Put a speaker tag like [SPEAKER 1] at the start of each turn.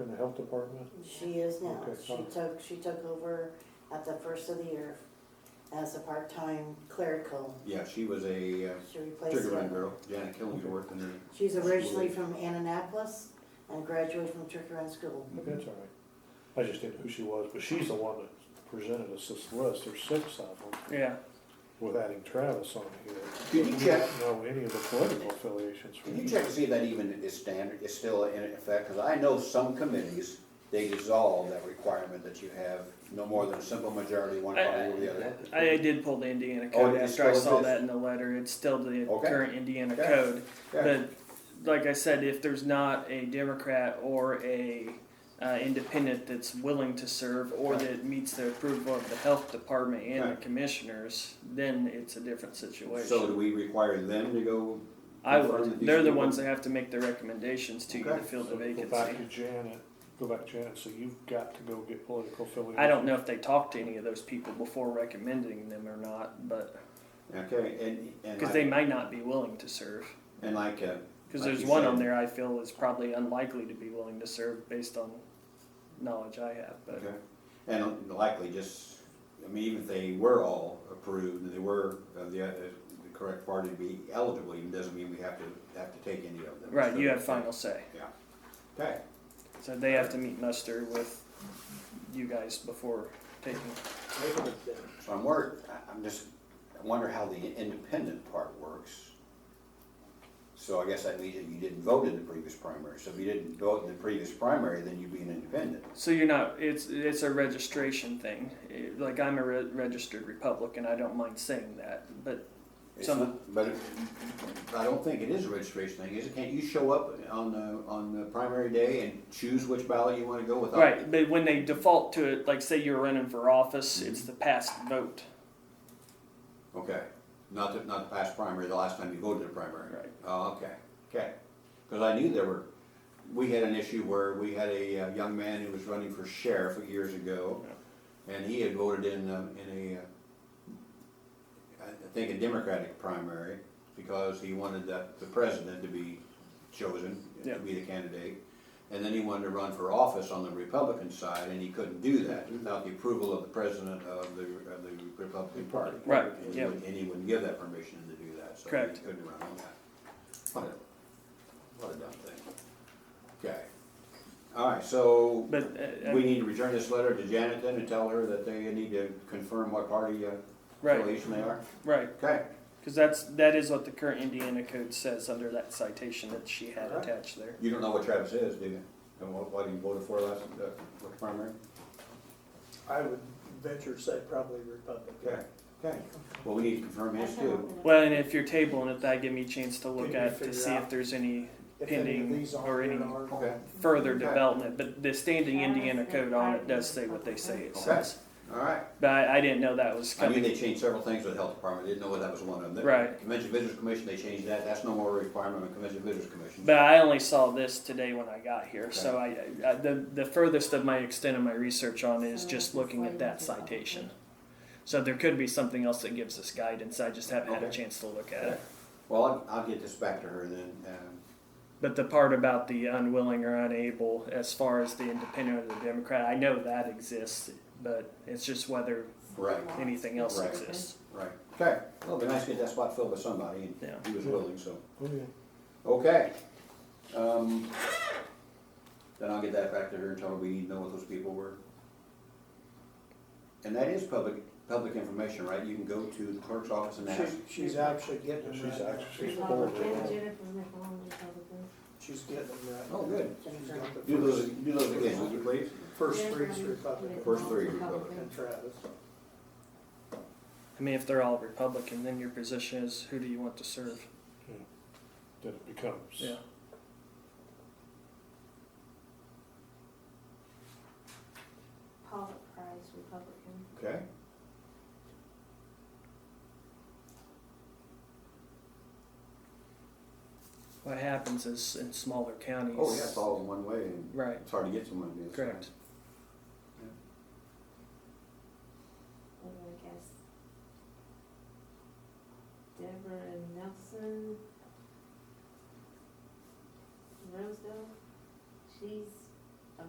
[SPEAKER 1] in the health department?
[SPEAKER 2] She is now.
[SPEAKER 1] Okay,
[SPEAKER 2] She
[SPEAKER 1] fine.
[SPEAKER 2] took, she took over at the first of the year as a part-time clerical.
[SPEAKER 3] Yeah, she was a uh,
[SPEAKER 2] She replaced
[SPEAKER 3] trigger
[SPEAKER 2] her.
[SPEAKER 3] line girl, Janet Killingsworth, and then
[SPEAKER 2] She's originally from Annapolis and graduated from Turkey School.
[SPEAKER 3] Mm-hmm.
[SPEAKER 1] Okay, That's all right. I just didn't know who she was, but she's the one that presented us this list. There's six of them
[SPEAKER 4] Yeah,
[SPEAKER 1] with adding Travis on here.
[SPEAKER 3] Could you
[SPEAKER 1] We
[SPEAKER 3] check-
[SPEAKER 1] don't know any of the political affiliations. for
[SPEAKER 3] Can you check to see if that even is standard, is still in effect? Because I know some committees, they dissolve that requirement that you have no more than a simple majority, one party or the other.
[SPEAKER 4] I, I did pull the Indiana
[SPEAKER 3] Oh,
[SPEAKER 4] code
[SPEAKER 3] it
[SPEAKER 4] after I
[SPEAKER 3] still
[SPEAKER 4] saw
[SPEAKER 3] exists.
[SPEAKER 4] that in the letter. It's still the
[SPEAKER 3] Okay.
[SPEAKER 4] current Indiana
[SPEAKER 3] Okay.
[SPEAKER 4] code.
[SPEAKER 3] Yeah.
[SPEAKER 4] But like I said, if there's not a Democrat or a uh, independent that's willing to serve or
[SPEAKER 3] Right.
[SPEAKER 4] that meets the approval of the health department and
[SPEAKER 3] Right.
[SPEAKER 4] the commissioners, then it's a different situation.
[SPEAKER 3] So do we require them to go?
[SPEAKER 4] I
[SPEAKER 3] confirm that
[SPEAKER 4] would.
[SPEAKER 3] these
[SPEAKER 4] They're the
[SPEAKER 3] people-
[SPEAKER 4] ones that have to make the recommendations to you to
[SPEAKER 3] Okay.
[SPEAKER 4] fill the
[SPEAKER 1] So
[SPEAKER 4] vacancy.
[SPEAKER 1] Go back to Janet, go back to Janet, so you've got to go get political affiliations.
[SPEAKER 4] I don't know if they talked to any of those people before recommending them or not, but
[SPEAKER 3] Okay, and, and
[SPEAKER 4] because they
[SPEAKER 3] like,
[SPEAKER 4] might not be willing to serve.
[SPEAKER 3] and like, uh,
[SPEAKER 4] Because
[SPEAKER 3] Like
[SPEAKER 4] there's
[SPEAKER 3] you
[SPEAKER 4] one
[SPEAKER 3] said.
[SPEAKER 4] on there I feel is probably unlikely to be willing to serve based on knowledge I have. But
[SPEAKER 3] okay, and likely just, I mean, even if they were all approved and they were of the, uh, the correct party to be eligible, even doesn't mean we have to, have to take any of them.
[SPEAKER 4] right, you have final say.
[SPEAKER 3] Okay,
[SPEAKER 4] So they have to meet muster with you guys before taking.
[SPEAKER 3] So I'm worried, I- I'm just, I wonder how the independent part works. So I guess that means that you didn't vote in the previous primary, so if you didn't vote in the previous primary, then you'd be an independent.
[SPEAKER 4] So you're not. It's it's a registration thing. It- like I'm a re- registered Republican. I don't mind saying that, but
[SPEAKER 3] It's
[SPEAKER 4] Some-
[SPEAKER 3] not- But it- I don't think it is a registration thing, is it? Can't you show up on the, on the primary day and choose which ballot you wanna go with?
[SPEAKER 4] Right, but when they default to it, like say you're running for office,
[SPEAKER 3] Mm-hmm.
[SPEAKER 4] it's the past vote.
[SPEAKER 3] Okay, not the, not the past primary, the last time you voted in the primary?
[SPEAKER 4] Right.
[SPEAKER 3] Oh, okay, okay. Because I knew there were, we had an issue where we had a uh, young man who was running for sheriff years ago, and he had voted in, um, in a, uh, I I think a Democratic primary, because he wanted the, the president to be chosen,
[SPEAKER 4] Yeah.
[SPEAKER 3] to be the candidate. And then he wanted to run for office on the Republican side, and he couldn't do that
[SPEAKER 4] Mm-hmm.
[SPEAKER 3] without the approval of the president of the, of the Republican Party.
[SPEAKER 4] Right,
[SPEAKER 3] And he
[SPEAKER 4] yeah.
[SPEAKER 3] wouldn't- And he wouldn't give that permission to do that, so
[SPEAKER 4] Correct.
[SPEAKER 3] he couldn't run on that. What a, what a dumb thing. Okay. All right, so
[SPEAKER 4] But uh, I
[SPEAKER 3] we
[SPEAKER 4] mean,
[SPEAKER 3] need to return this letter to Janet then and tell her that they need to confirm what party uh,
[SPEAKER 4] right,
[SPEAKER 3] affiliation they are?
[SPEAKER 4] right,
[SPEAKER 3] Okay,
[SPEAKER 4] because that's that is what the current Indiana code says under that citation that she had
[SPEAKER 3] Alright.
[SPEAKER 4] attached there.
[SPEAKER 3] you don't know what Travis is, do you? And what, what he voted for last, uh, what primary?
[SPEAKER 5] I would venture to say probably Republican.
[SPEAKER 3] Okay, okay. Well, we need to confirm his too.
[SPEAKER 4] Well, and if you're tabling it, that give me a chance to look
[SPEAKER 5] Can you
[SPEAKER 4] at to
[SPEAKER 5] figure
[SPEAKER 4] see if
[SPEAKER 5] out
[SPEAKER 4] there's any
[SPEAKER 5] If any of
[SPEAKER 4] Pending
[SPEAKER 5] these
[SPEAKER 4] or
[SPEAKER 5] are
[SPEAKER 4] any-
[SPEAKER 5] in our.
[SPEAKER 3] Okay,
[SPEAKER 4] further
[SPEAKER 3] Okay.
[SPEAKER 4] development. But the standing Indiana code on it does say what they say it
[SPEAKER 3] Okay.
[SPEAKER 4] says.
[SPEAKER 3] all right.
[SPEAKER 4] But I, I didn't know that was
[SPEAKER 3] I mean,
[SPEAKER 4] coming.
[SPEAKER 3] they changed several things with the health department, didn't know that was one of them.
[SPEAKER 4] Right.
[SPEAKER 3] Convention Visitors Commission, they changed that, that's no more a requirement of the Convention Visitors Commission.
[SPEAKER 4] But I only saw this today when I got here, so I, I the the furthest of my extent of my research on it is just looking at that citation. So there could be something else that gives us guidance. I just haven't had a
[SPEAKER 3] Okay.
[SPEAKER 4] chance to look at it.
[SPEAKER 3] Well, I'll, I'll get this back to her then, um,
[SPEAKER 4] But the part about the unwilling or unable, as far as the independent or the Democrat, I know that exists, but it's just whether
[SPEAKER 3] right,
[SPEAKER 4] anything else
[SPEAKER 3] Right.
[SPEAKER 4] exists.
[SPEAKER 3] right. Okay, well, it'd be nice to get that spot filled by somebody,
[SPEAKER 4] Yeah.
[SPEAKER 3] and he was willing, so.
[SPEAKER 1] Oh, yeah.
[SPEAKER 3] Okay. Um, then I'll get that back to her and tell her we need to know what those people were. And that is public, public information, right? You can go to the clerk's office and ask.
[SPEAKER 5] She, she's actually getting them
[SPEAKER 1] She's
[SPEAKER 5] right now.
[SPEAKER 1] actually-
[SPEAKER 6] Republican, Jennifer McCollum, Republican.
[SPEAKER 5] She's getting them right.
[SPEAKER 3] Oh, good.
[SPEAKER 5] She's got the
[SPEAKER 3] Do those,
[SPEAKER 5] first-
[SPEAKER 3] do those again, would you please?
[SPEAKER 5] First three is Republican.
[SPEAKER 3] First three Republican.
[SPEAKER 5] And Travis.
[SPEAKER 4] I mean, if they're all Republican, then your position is who do you want to serve?
[SPEAKER 1] Then it becomes.
[SPEAKER 4] Yeah.
[SPEAKER 6] Paul Price, Republican.
[SPEAKER 3] Okay.
[SPEAKER 4] What happens is in smaller counties.
[SPEAKER 3] Oh, yeah, it's all in one way and
[SPEAKER 4] Right,
[SPEAKER 3] it's hard to get someone to do this.
[SPEAKER 4] correct.
[SPEAKER 6] What do I guess? Deborah Nelson. Rosedale, she's